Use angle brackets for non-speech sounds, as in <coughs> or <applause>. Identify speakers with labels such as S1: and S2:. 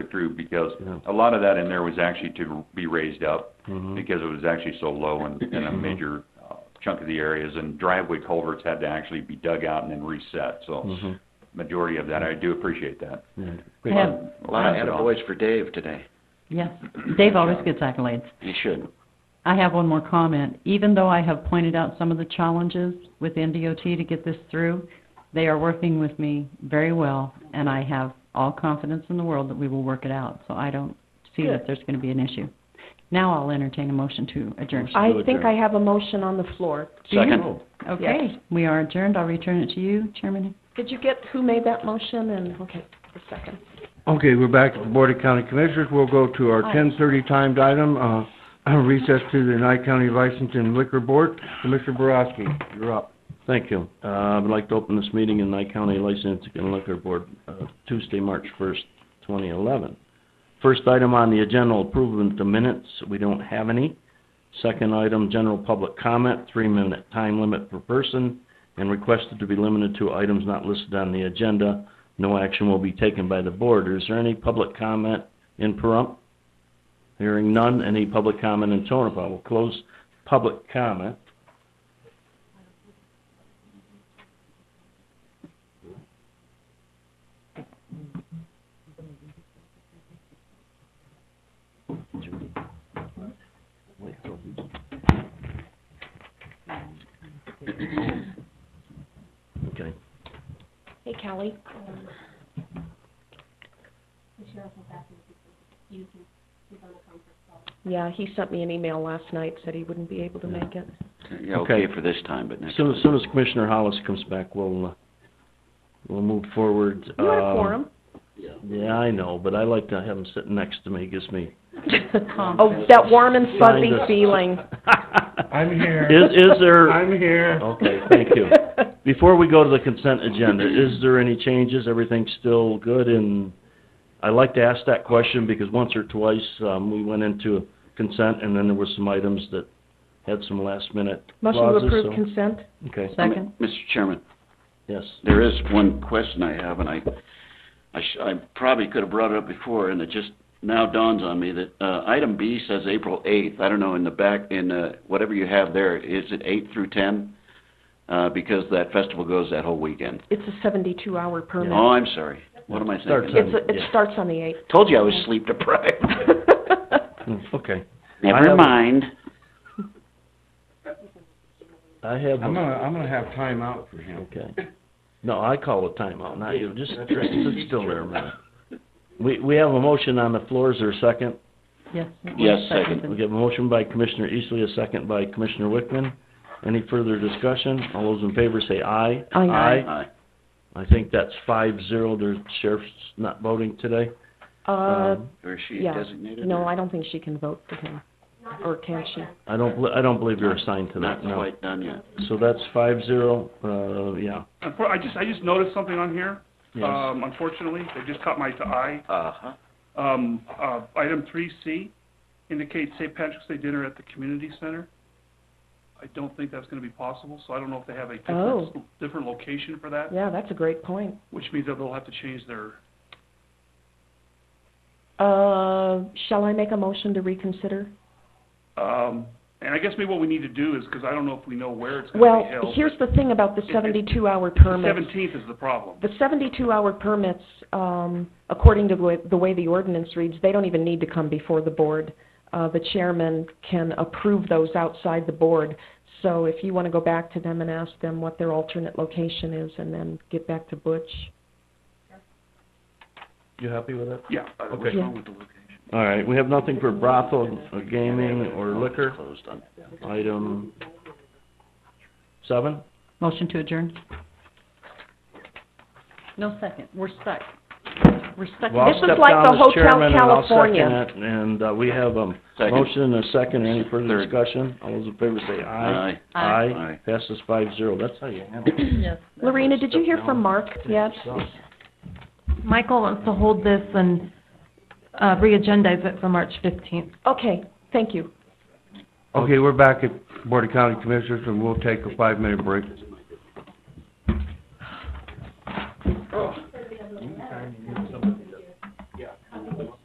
S1: through because
S2: Yeah.
S1: a lot of that in there was actually to be raised up
S2: Mhm.
S3: Mm-hmm.
S1: because it was actually so low in, in a
S2: Mhm.
S1: major uh, chunk of the areas. And driveway culverts had to actually be dug out and then reset. So
S3: Mm-hmm.
S2: Mhm.
S1: majority of that, I do appreciate that.
S2: Yeah.
S3: I have-
S1: I'll
S3: A lot of
S1: pass it on.
S3: attaboys for Dave today.
S4: Yes, Dave always gets accolades.
S3: He should.
S4: I have one more comment. Even though I have pointed out some of the challenges with NDOT to get this through, they are working with me very well, and I have all confidence in the world that we will work it out. So I don't see that
S5: Good.
S4: there's going to be an issue. Now I'll entertain a motion to adjourn.
S5: I
S2: Still
S5: think
S2: adjourned.
S5: I have a motion on the floor.
S4: Do you?
S3: Second.
S4: Okay, we are adjourned. I'll return it to you, Chairman.
S5: Did you get who made that motion and, okay, the second?
S2: Okay, we're back at the Board of County Commissioners. We'll go to our
S5: Aye.
S2: 10:30 timed item, uh, <clears throat> recess to the Nye County Licensing Liquor Board. Commissioner Boraski, you're up.
S6: Thank you. Uh, I would like to open this meeting in Nye County Licensing and Liquor Board, uh, Tuesday, March 1st, 2011. First item on the agenda, approval of the minutes. We don't have any. Second item, general public comment, three-minute time limit per person, and requested to be limited to items not listed on the agenda. No action will be taken by the board. Is there any public comment in Pahrump? Hearing none. Any public comment in Tonopah? We'll close public comment. Okay.
S5: Hey, Callie. Yeah, he sent me an email last night, said he wouldn't be able to make it.
S3: Yeah,
S6: Okay.
S3: okay for this time, but
S6: As
S3: next.
S6: soon, as soon as Commissioner Hollis comes back, we'll, uh, we'll move forward.
S5: You had a
S6: Um,
S5: quorum.
S6: Yeah, I know, but I like to have him sitting next to me, gives me.
S5: Oh, that warm and fuzzy
S6: Kind of.
S5: feeling.
S2: I'm here.
S6: Is, is
S5: <laughs>
S6: there,
S2: I'm here.
S6: okay, thank you. Before we go to the consent agenda, is there any changes? Everything's still good? And I like to ask that question because once or twice, um, we went into consent and then there were some items that had some last minute
S5: Motion to
S6: clauses,
S5: approve
S6: so-
S5: consent?
S6: Okay,
S4: Second.
S3: Mr. Chairman,
S6: yes.
S3: there is one question I have, and I, I, sh- I probably could have brought it up before, and it just now dawns on me that, uh, item B says April eighth. I don't know, in the back, in, uh, whatever you have there, is it eight through ten? Uh, because that festival goes that whole weekend.
S5: It's a seventy-two hour permit.
S3: Oh, I'm sorry. What am I
S6: Starts at-
S3: thinking?
S5: It's, a- it
S6: Yeah.
S5: starts on the
S3: <laughs>
S5: eighth.
S3: Told you I was sleep deprived.
S6: Mm, Okay. I
S3: Never
S6: have-
S3: mind.
S6: I have.
S2: I'm
S6: a-
S2: gonna, I'm gonna have time out for him.
S6: Okay. No, I call a timeout, not you. Just sit still there a minute. We, we have a motion on the floor. Is there a second?
S4: Yes. Oh,
S3: Yes, second.
S6: We have a motion by Commissioner Eastley, a second by Commissioner Wickman. Any further discussion? All those in favor say aye.
S4: Oh,
S5: Aye.
S3: Aye.
S6: I think that's five zero. The sheriff's not voting today.
S5: Uh,
S6: Um,
S3: Or is she
S5: Yeah.
S3: designated?
S5: no,
S3: or-
S5: I don't think she can vote for him. Or can she?
S6: I don't, bel- I don't believe you're assigned to
S3: Not
S6: that, no.
S3: quite done yet.
S6: So that's five zero, uh, yeah.
S7: Unfor- I just, I just noticed something on here.
S6: Yes.
S3: Uh,
S7: Um, unfortunately, it just caught my eye.
S3: Uh-huh.
S7: Um, uh, item three C indicates St. Patrick's Day dinner at the community center. I don't think that's gonna be possible, so I don't know if they have a different, different location for that,
S5: Oh. Yeah, that's a great point.
S7: which means that they'll have to change their,
S5: Uh, shall I make a motion to reconsider?
S7: um, and I guess maybe what we need to do is, because I don't know if we know where it's gonna
S5: Well,
S7: be held.
S5: here's the thing about the
S7: It- it-
S5: seventy-two hour permit.
S7: Seventeenth is the problem.
S5: The seventy-two hour permits, um, according to the way- the way the ordinance reads, they don't even need to come before the board. Uh, the chairman can approve those outside the board. So if you want to go back to them and ask them what their alternate location is and then get back to Butch.
S6: You happy with that?
S7: Yeah. uh, what's
S6: Okay.
S7: wrong with the location?
S6: All right, we have nothing for brothel, or gaming, or liquor.
S3: Closed on that.
S6: Item seven?
S4: Motion to adjourn. No second. We're stuck. We're stuck.
S6: Well, I'll
S5: This is
S6: step
S5: like
S6: down
S5: the
S6: as
S5: Hotel
S6: chairman, and I'll second
S5: California.
S6: it, And, uh, we have a
S3: Second.
S6: motion and a second. Any further
S3: Third.
S6: discussion? All those in favor say aye.
S3: Aye.
S4: Aye.
S3: Aye.
S6: Passes five zero. That's how you
S3: <coughs>
S6: handle it.
S4: Yes.
S5: Lorena, did you hear
S6: Step
S5: from
S6: down.
S5: Mark yet?
S8: Michael wants to hold this and uh, re-agendize it for March 15th.
S5: Okay, thank you.
S2: Okay, we're back at Board of County Commissioners, and we'll take a five-minute break.